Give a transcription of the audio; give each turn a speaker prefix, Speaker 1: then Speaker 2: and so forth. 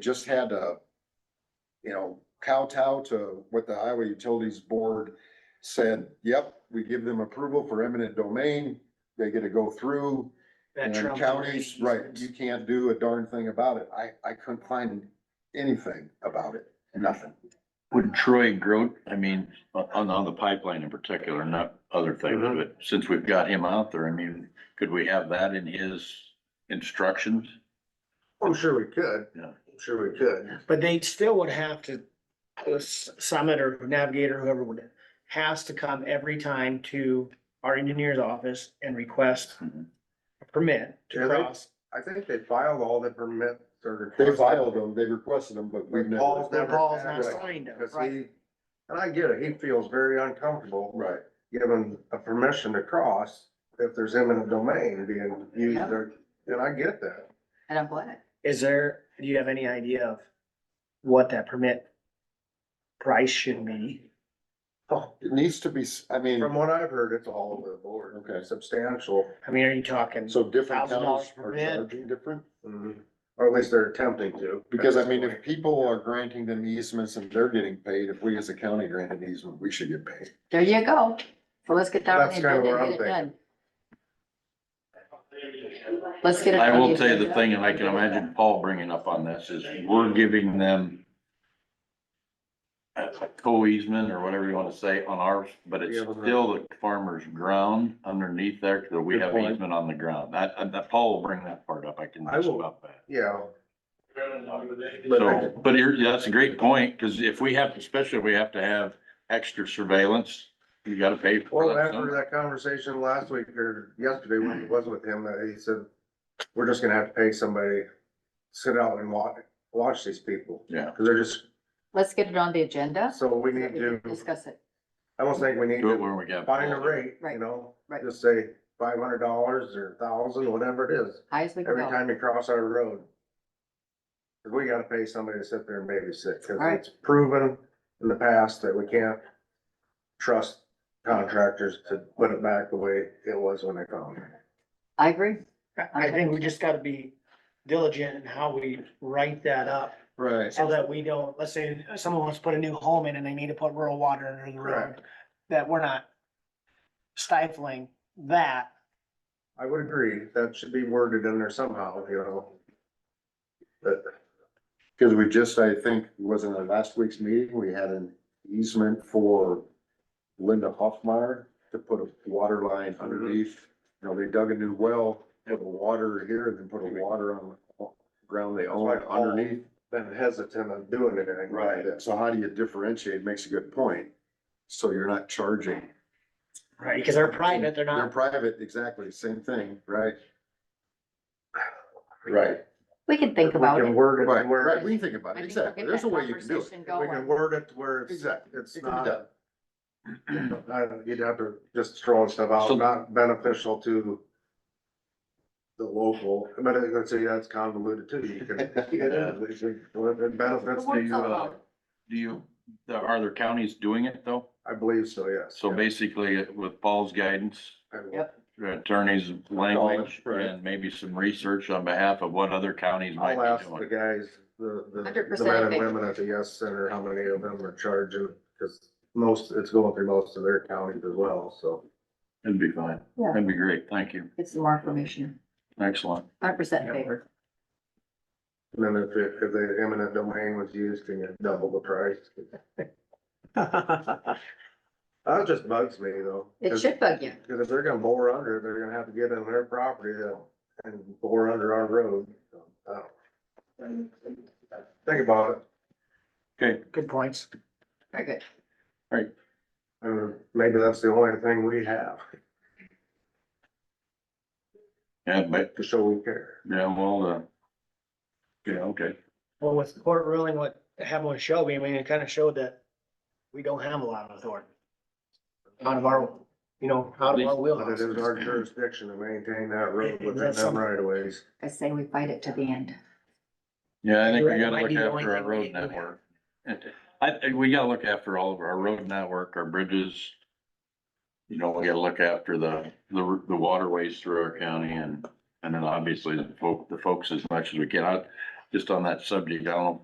Speaker 1: just had to, you know, kowtow to what the Highway Utilities Board said, yep, we give them approval for eminent domain, they get to go through.
Speaker 2: That
Speaker 1: And
Speaker 2: trumps
Speaker 1: counties,
Speaker 2: the
Speaker 1: right,
Speaker 2: easements.
Speaker 1: you can't do a darn thing about it. I, I couldn't find anything about it, nothing.
Speaker 3: Would Troy Grote, I mean, on, on the pipeline in particular, not other things,
Speaker 4: Mhm.
Speaker 3: but since we've got him out there, I mean, could we have that in his instructions?
Speaker 4: I'm Oh, sure we could.
Speaker 3: Yeah.
Speaker 4: I'm Sure we could.
Speaker 2: But they still would have to, the s- Summit or Navigator, whoever would, has to come every time to our engineer's office and request
Speaker 3: Mhm.
Speaker 2: a permit to
Speaker 4: Yeah, they-
Speaker 2: cross.
Speaker 4: I think they filed all the permits or.
Speaker 1: They filed them, they requested them, but we've
Speaker 4: But
Speaker 1: never.
Speaker 4: Paul's never.
Speaker 2: Paul's
Speaker 4: had
Speaker 2: not
Speaker 4: it,
Speaker 2: signed them,
Speaker 4: 'cause
Speaker 2: right.
Speaker 4: he- And I get it. He feels very uncomfortable
Speaker 1: Right,
Speaker 4: given a permission to cross if there's eminent domain being used
Speaker 5: Yeah.
Speaker 4: there. And I get that.
Speaker 5: And I'm glad.
Speaker 2: Is there, do you have any idea of what that permit price should be?
Speaker 1: it needs to be, s- I mean,
Speaker 4: From what I've heard, it's all over the board.
Speaker 1: Okay.
Speaker 4: Substantial.
Speaker 2: I mean, are you talking?
Speaker 1: so different
Speaker 2: Thousand dollars
Speaker 1: counties
Speaker 2: per
Speaker 1: are
Speaker 2: bid.
Speaker 1: charging different?
Speaker 4: Mhm. Or at least they're attempting to.
Speaker 1: Because I mean, if people are granting them easements and they're getting paid, if we as a county grant an easement, we should get paid.
Speaker 5: There you go. So let's get that on the
Speaker 4: That's kinda
Speaker 5: agenda
Speaker 4: where
Speaker 5: and get it
Speaker 4: I'm
Speaker 5: done. Let's get it.
Speaker 3: I
Speaker 5: on
Speaker 3: will say the
Speaker 5: agenda.
Speaker 3: thing, and I can imagine Paul bringing up on this, is we're giving them a co-easement or whatever you wanna say on ours, but it's
Speaker 4: Yeah, but-
Speaker 3: still the farmer's ground underneath there, so we
Speaker 1: Good
Speaker 3: have
Speaker 1: point.
Speaker 3: easement on the ground. That, and that Paul will bring that part up, I can
Speaker 4: I
Speaker 3: just
Speaker 4: will.
Speaker 3: about that.
Speaker 4: Yeah. But I-
Speaker 3: So, but you're, yeah, that's a great point, cause if we have, especially if we have to have extra surveillance, you gotta pay for
Speaker 4: Well,
Speaker 3: that.
Speaker 4: after
Speaker 3: some-
Speaker 4: that conversation last week or yesterday when he was with him, that he said, we're just gonna have to pay somebody, sit out and watch, watch these people,
Speaker 3: Yeah,
Speaker 4: cause they're just,
Speaker 5: Let's get it on the agenda.
Speaker 4: so we
Speaker 5: so
Speaker 4: need
Speaker 5: we can
Speaker 4: to,
Speaker 5: Discuss it.
Speaker 4: I almost think we need
Speaker 3: do it
Speaker 4: to
Speaker 3: when we get.
Speaker 4: find a
Speaker 3: Paul there.
Speaker 4: rate, you
Speaker 5: Right,
Speaker 4: know?
Speaker 5: right.
Speaker 4: Just say five hundred dollars or thousand, whatever it is,
Speaker 5: High as we can
Speaker 4: every
Speaker 5: go.
Speaker 4: time you cross our road. 'Cause we gotta pay somebody to sit there and babysit, cause
Speaker 5: Right.
Speaker 4: it's proven in the past that we can't trust contractors to put it back the way it was when they found it.
Speaker 5: I agree.
Speaker 2: I- I think we just gotta be diligent in how we write that up.
Speaker 1: Right.
Speaker 2: So that we don't, let's say someone wants to put a new home in and they need to put rural water under the road, that we're not stifling that.
Speaker 4: I would agree, that should be worded in there somehow, you know. But
Speaker 1: Cause we just, I think, was in the last week's meeting, we had an easement for Linda Hoffmeyer to put a water line underneath. You know, they dug a new well, put a water here and then put a water on the ground they own underneath.
Speaker 4: been hesitant on doing anything like that.
Speaker 1: So how do you differentiate? Makes a good point. So you're not charging.
Speaker 2: Right. Because they're private, they're
Speaker 1: They're
Speaker 2: not,
Speaker 1: private, exactly, same thing, right? Right.
Speaker 5: We can think
Speaker 4: We
Speaker 5: about
Speaker 4: can
Speaker 5: it.
Speaker 4: word
Speaker 1: Right,
Speaker 4: it
Speaker 1: right,
Speaker 4: where,
Speaker 1: we can think about
Speaker 5: I
Speaker 1: it,
Speaker 5: think we'll
Speaker 1: exactly,
Speaker 5: get
Speaker 1: there's
Speaker 5: that
Speaker 1: a way you can do it.
Speaker 5: conversation
Speaker 4: we can
Speaker 5: going.
Speaker 4: word it where it's,
Speaker 1: Exactly.
Speaker 4: it's
Speaker 1: It can be
Speaker 4: not,
Speaker 1: done.
Speaker 4: I- you'd have to just throwing stuff
Speaker 3: So-
Speaker 4: out, not beneficial to the local, but I would say that's convoluted too. You can, uh, it benefits
Speaker 5: The word's
Speaker 4: the,
Speaker 5: all
Speaker 4: uh,
Speaker 5: out.
Speaker 3: Do you, are there counties doing it though?
Speaker 4: I believe so, yes.
Speaker 3: So basically, with Paul's guidance, uh,
Speaker 4: Yep.
Speaker 5: Yep.
Speaker 3: attorney's language,
Speaker 1: right.
Speaker 3: and maybe some research on behalf of what other counties might
Speaker 4: I'll
Speaker 3: be
Speaker 4: ask the
Speaker 3: doing.
Speaker 4: guys, the, the, the
Speaker 5: 100%
Speaker 4: men and
Speaker 5: they-
Speaker 4: women at the Yes Center, how many of them are charging, cause most, it's going through most of their counties as well, so.
Speaker 3: It'd be fine.
Speaker 5: Yeah.
Speaker 3: That'd be great. Thank you.
Speaker 5: Get some more information.
Speaker 3: Excellent.
Speaker 5: Hundred percent in favor.
Speaker 4: And then if, it- if the eminent domain was used, then you double the price. That just bugs me though.
Speaker 5: It
Speaker 4: 'cause-
Speaker 5: should bug you.
Speaker 4: Cause if they're gonna bore under, it, they're gonna have to get in their property and- and bore under our road, so, I don't. Think about it,
Speaker 3: Okay,
Speaker 2: good points.
Speaker 5: Very good.
Speaker 4: I mean, maybe that's the only thing we have
Speaker 3: yeah, but,
Speaker 4: to show we care.
Speaker 3: yeah, well, uh, yeah, okay.
Speaker 2: Well, with the court ruling, what happened with Shelby, I mean, it kind of showed that we don't have a lot of authority. Out of our, you know, out of our
Speaker 4: But it
Speaker 2: wheelhouse.
Speaker 4: is our jurisdiction to maintain that road within
Speaker 2: That's
Speaker 4: them
Speaker 2: something-
Speaker 4: right of ways.
Speaker 5: I say we fight it to the end.
Speaker 3: Yeah, I think we
Speaker 2: Right, it
Speaker 3: gotta
Speaker 2: might
Speaker 3: look
Speaker 2: be the only
Speaker 3: after our
Speaker 2: thing we
Speaker 3: road
Speaker 2: need to have.
Speaker 3: network. I, think we gotta look after all of our road network, our bridges. You know, we gotta look after the, the, the waterways through our county and, and then obviously the folk, the folks as much as we can. I, just on that subject, I don't know